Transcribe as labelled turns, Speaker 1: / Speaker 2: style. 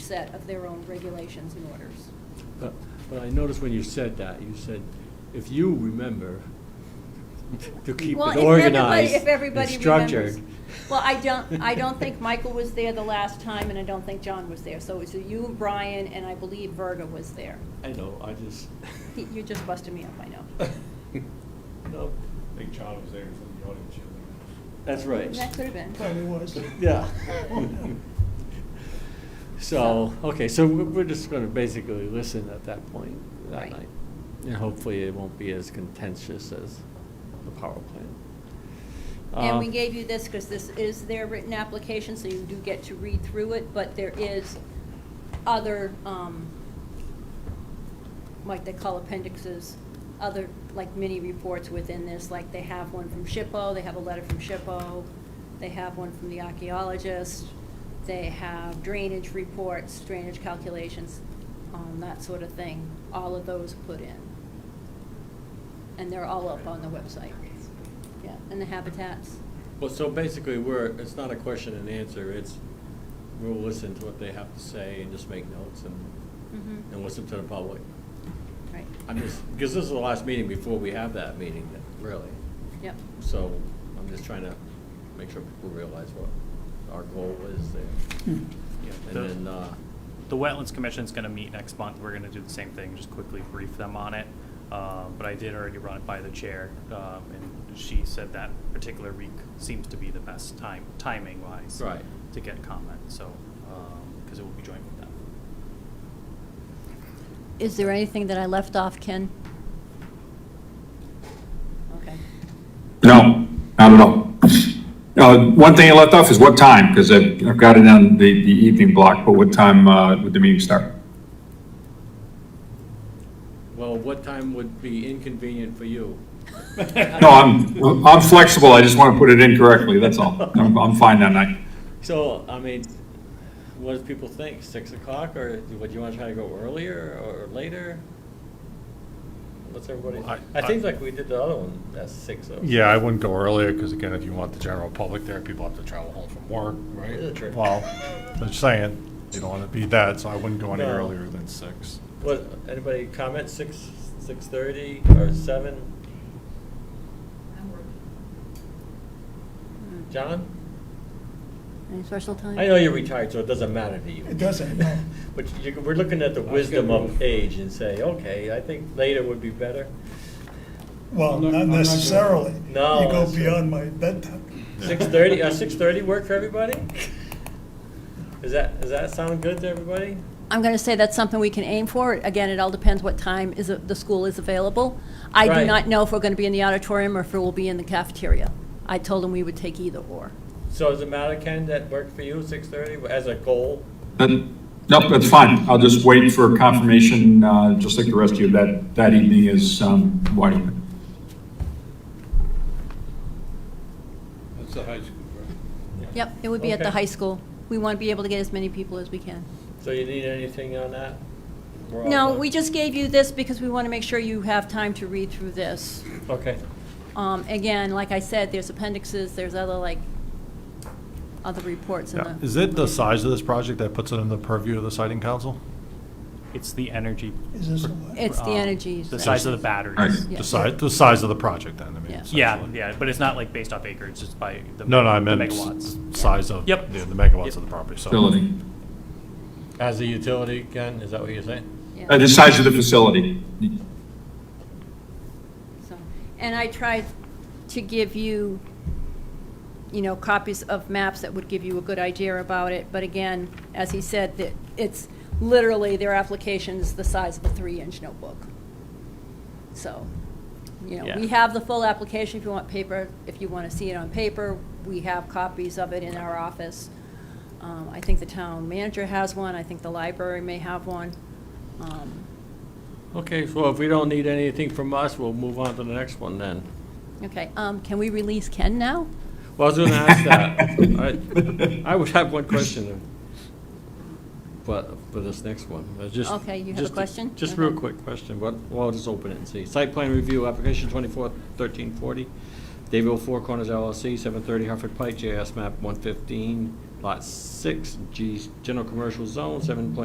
Speaker 1: set of their own regulations and orders.
Speaker 2: But, but I noticed when you said that, you said, if you remember to keep
Speaker 1: Well,
Speaker 2: it
Speaker 1: if everybody-
Speaker 2: organized
Speaker 1: if
Speaker 2: and
Speaker 1: everybody
Speaker 2: structured.
Speaker 1: remembers. Well, I don't, I don't think Michael was there the last time, and I don't think John was there, so it was you and Brian, and I believe Verga was there.
Speaker 2: I know, I just.
Speaker 1: He- You just busted me up, I know.
Speaker 2: No,
Speaker 3: I think John was there, he's in the audience. yeah.
Speaker 2: that's right.
Speaker 1: That could have been.
Speaker 3: Thought he was.
Speaker 2: Yeah. So, okay, so we're we're just gonna basically listen at that point, that
Speaker 1: Right.
Speaker 2: night. And hopefully it won't be as contentious as the power plant.
Speaker 1: And
Speaker 2: Uh,
Speaker 1: we gave you this because this is their written application, so you do get to read through it, but there is other, um, like they call appendixes, other, like mini reports within this, like they have one from SHPO, they have a letter from SHPO, they have one from the archaeologist, they have drainage reports, drainage calculations, um, that sort of thing. All of those put in. And they're all up on the website. Yeah, and the habitats.
Speaker 2: Well, so basically, we're, it's not a question and answer, it's, we'll listen to what they have to say and just make notes and, and listen to the public.
Speaker 1: Right,
Speaker 2: I'm just, because this is the last meeting before we have that meeting, really.
Speaker 1: yep.
Speaker 2: So I'm just trying to make sure people realize what our goal is there.
Speaker 4: Yeah, the-
Speaker 2: And then, uh,
Speaker 4: The Wetlands Commission's gonna meet next month, we're gonna do the same thing, just quickly brief them on it. Um, But I did already run it by the chair, um, and she said that particular week seems to be the best time, timing wise.
Speaker 2: Right.
Speaker 4: To get comment, so, because it will be joint with them.
Speaker 1: Is there anything that I left off, Ken? Okay.
Speaker 5: No, not at all. Uh, One thing I left off is what time, because I've I've got it on the the evening block, but what time uh, would the meeting start?
Speaker 2: well, what time would be inconvenient for you?
Speaker 5: No, I'm, I'm flexible, I just want to put it in correctly, that's all. I'm I'm fine that night.
Speaker 2: So, I mean, what do people think, six o'clock, or would you want to try to go earlier or later? What's everybody,
Speaker 3: Well, I-
Speaker 2: I think like we did the other one, that's six. oh. so-
Speaker 3: Yeah, I wouldn't go earlier, because again, if you want the general public there, people have to travel home from work, right?
Speaker 2: Yeah, true.
Speaker 3: Well, I'm saying, you don't want to be that, so I wouldn't go any
Speaker 2: No.
Speaker 3: earlier than six.
Speaker 2: What, anybody comment, six, six-thirty or seven? John?
Speaker 1: Any special time?
Speaker 2: Hmm. I know you're retired, so it doesn't matter to you.
Speaker 6: It doesn't, no.
Speaker 2: But you, we're looking at the
Speaker 7: was
Speaker 2: wisdom
Speaker 7: gonna
Speaker 2: of
Speaker 7: move.
Speaker 2: age and say, okay, I think later would be better.
Speaker 6: Well,
Speaker 7: I'm not-
Speaker 6: not
Speaker 7: I'm not gonna-
Speaker 6: necessarily.
Speaker 2: No,
Speaker 6: You go
Speaker 2: that's-
Speaker 6: beyond my bedtime.
Speaker 2: Six-thirty, uh, six-thirty work for everybody? Is that, does that sound good to everybody?
Speaker 1: I'm going to say that's something we can aim for. Again, it all depends what time is, a- the school is available. I do
Speaker 2: Right.
Speaker 1: not know if we're going to be in the auditorium or if we'll be in the cafeteria. I told them we would take either or.
Speaker 2: So does it matter, Ken, that work for you, six-thirty, as a goal?
Speaker 5: Then- Nope, that's fine, I'll just wait for confirmation, uh, just like the rest of you, that, that evening is um, wide open.
Speaker 7: That's the high school, right?
Speaker 1: Yep, it would be at the
Speaker 2: Okay.
Speaker 1: high school. We want to be able to get as many people as we can.
Speaker 2: So you need anything on that? We're all
Speaker 1: No,
Speaker 2: done?
Speaker 1: we just gave you this because we want to make sure you have time to read through this.
Speaker 2: Okay,
Speaker 1: Um, Again, like I said, there's appendixes, there's other, like, other reports in
Speaker 3: Yeah,
Speaker 1: the.
Speaker 3: is it the size of this project that puts it in the purview of the siting council?
Speaker 4: It's the energy.
Speaker 6: Is this the one?
Speaker 1: It's the
Speaker 4: um,
Speaker 1: energy.
Speaker 4: The size of the batteries.
Speaker 1: Yeah.
Speaker 3: The size, the size of the project then, I mean,
Speaker 1: Yeah.
Speaker 4: Yeah,
Speaker 3: essentially.
Speaker 4: yeah, but it's not like based off acreage, just by the.
Speaker 3: No, no, I
Speaker 4: the
Speaker 3: meant s-
Speaker 4: Megawatts.
Speaker 3: size of, yeah,
Speaker 4: Yep.
Speaker 3: the megawatts
Speaker 4: Yep.
Speaker 3: of the property, so.
Speaker 5: Facility,
Speaker 2: as a utility, Ken, is that what you're saying?
Speaker 1: Yeah.
Speaker 5: Uh, the size of the facility.
Speaker 1: So, And I tried to give you, you know, copies of maps that would give you a good idea about it, but again, as he said, that it's literally, their application's the size of a three-inch notebook. So, you know, we
Speaker 4: Yeah.
Speaker 1: have the full application if you want paper, if you want to see it on paper, we have copies of it in our office. Um, I think the town manager has one, I think the library may have one. Um,
Speaker 2: Okay, so if we don't need anything from us, we'll move on to the next one then.
Speaker 1: Okay, um, can we release Ken now?
Speaker 2: Well, I was gonna ask that. I- I would have one question, but for this next one, I was just.
Speaker 1: Okay, you have a
Speaker 2: just-
Speaker 1: question?
Speaker 2: Just
Speaker 1: Okay.
Speaker 2: real quick question, but, well, I'll just open it and see. Site plan review, application twenty-four thirteen forty, David Four Corners LLC, seven thirty Hartford Pike, JS map one fifteen, lot six, G, general commercial zone, seven point